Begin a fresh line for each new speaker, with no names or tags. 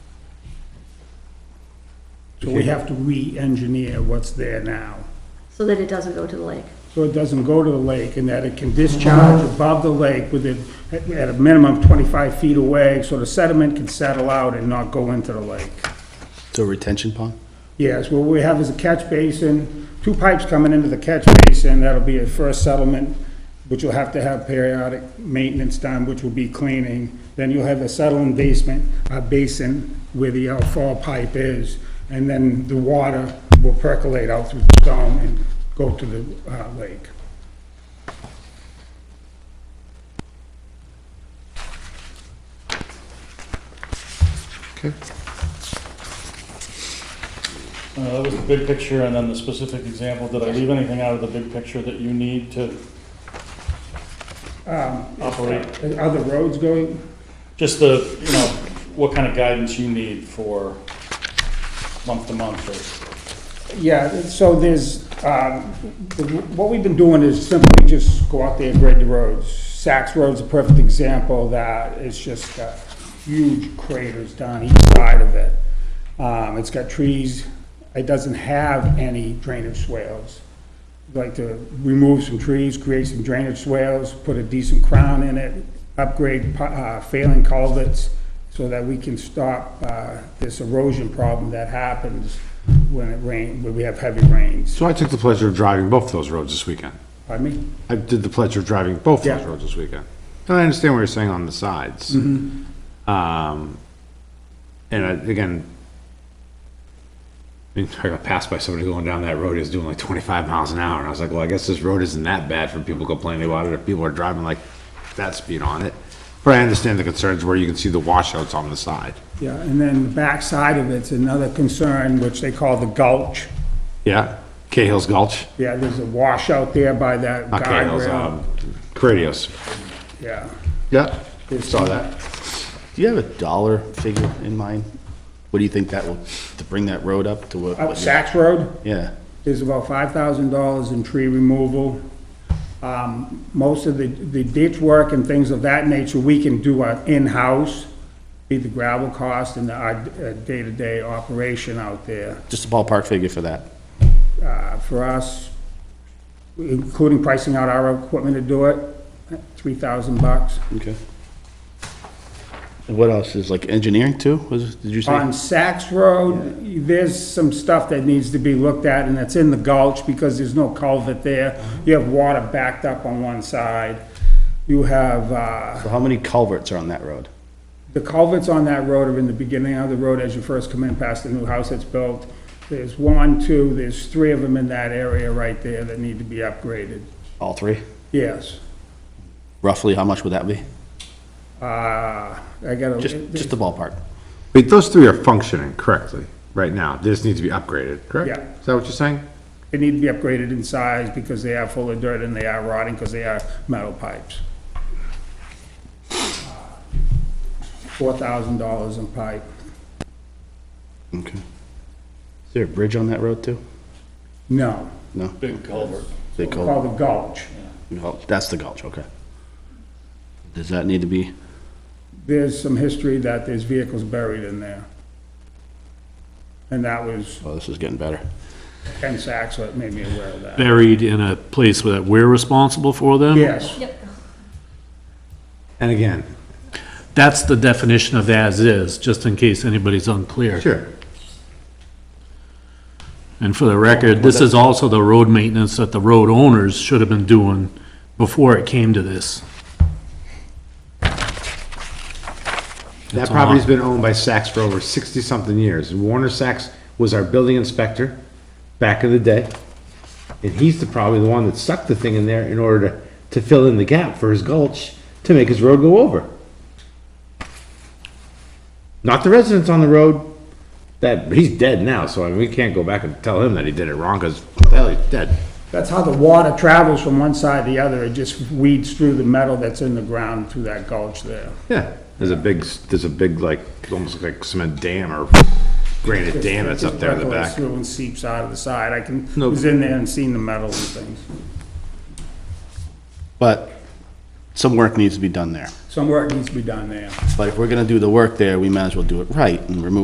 So we have to re-engineer what's there now.
so that it doesn't go to the lake.
So it doesn't go to the lake and that it can discharge above the lake within, at at a minimum 25 feet away, so the sediment can settle out and not go into the lake.
So retention pond?
Yes, what we have is a catch basin, two pipes coming into the catch basin, that'll be a first settlement, which you'll have to have periodic maintenance done, which will be cleaning. Then you'll have a settling basement, a basin where the outfall pipe is, and then the water will percolate out through the dome and go to the uh, lake.
Okay.
Uh, That was the big picture and then the specific example. Did I leave anything out of the big picture that you need to operate?
Are the roads going,
Just the, you know, what kind of guidance you need for month to month or
Yeah, so there's, um, the- what we've been doing is simply just go out there and grade the roads. Saks Road's a perfect example of that it's just got huge craters down each side of it. Um, It's got trees, it doesn't have any drainage swales. We'd Like to remove some trees, create some drainage swales, put a decent crown in it, upgrade uh, failing culverts so that we can stop uh, this erosion problem that happens when it rain, when we have heavy rains.
So I took the pleasure of driving both those roads this weekend.
Pardon me?
I did the pleasure of driving both those
Yeah.
roads this weekend. And I understand what you're saying on the sides.
Mm-hmm.
Um, and I- again, I mean, I got passed by somebody going down that road, he was doing like twenty-five miles an hour, and I was like, well, I guess this road isn't that bad for people complaining about it, if people are driving like that speed on it. But I understand the concerns where you can see the washouts on the side.
Yeah, and then the backside of it's another concern, which they call the gulch.
Yeah, Cahill's Gulch,
Yeah, there's a washout there by that
not Cahill's,
guardrail.
um, Cradius.
Yeah.
Yeah, saw that.
Do you have a dollar figure in mind? What do you think that will, to bring that road up to what?
Up
what you-
Saks Road?
Yeah.
There's about five thousand dollars in tree removal. Um, most of the, the ditch work and things of that nature, we can do our in-house, be the gravel cost and our uh, day-to-day operation out there.
Just a ballpark figure for that.
Uh, for us, including pricing out our equipment to do it, three thousand bucks.
Okay. And what else is like engineering too? Was, did you
On
say?
Saks Road, there's some stuff that needs to be looked at, and it's in the gulch because there's no culvert there.
Uh-huh.
You have water backed up on one side. You have, uh,
So how many culverts are on that road?
the culverts on that road are in the beginning of the road as you first come in past the new house that's built. There's one, two, there's three of them in that area right there that need to be upgraded.
All three?
Yes.
Roughly, how much would that be?
Uh, I gotta.
Just, just a ballpark.
Wait, those three are functioning correctly right now. They just need to be upgraded, correct?
Yeah.
Is that what you're saying?
They need to be upgraded in size because they are full of dirt and they are rotting because they are metal pipes. Four thousand dollars in pipe.
Okay. Is there a bridge on that road too?
No,
No?
big culvert?
They call,
called the gulch.
that's the gulch, okay. Does that need to be,
There's some history that there's vehicles buried in there. And that was
oh, this is getting better.
Ken Sachs that made me aware of that.
buried in a place that we're responsible for them?
Yes,
And again,
That's the definition of as-is, just in case anybody's unclear.
sure.
And for the record, this is also the road maintenance that the road owners should have been doing before it came to this.
That property's been owned by Saks for over 60-something years. And Warner Saks was our building inspector back in the day. And he's the, probably the one that stuck the thing in there in order to, to fill in the gap for his gulch to make his road go over. Not the residents on the road, that, but he's dead now, so I mean, we can't go back and tell him that he did it wrong, because, hell, he's dead.
that's how the water travels from one side to the other. It just weeds through the metal that's in the ground through that gulch there.
Yeah, there's a big, there's a big, like, almost like cement dam or granite dam that's up there in the
Percolates
back.
through and seeps out of the side. I can,
No.
was in there and seen the metal and things.
But some work needs to be done there.
Some work needs to be done there.
But if we're gonna do the work there, we might as well do it right and remove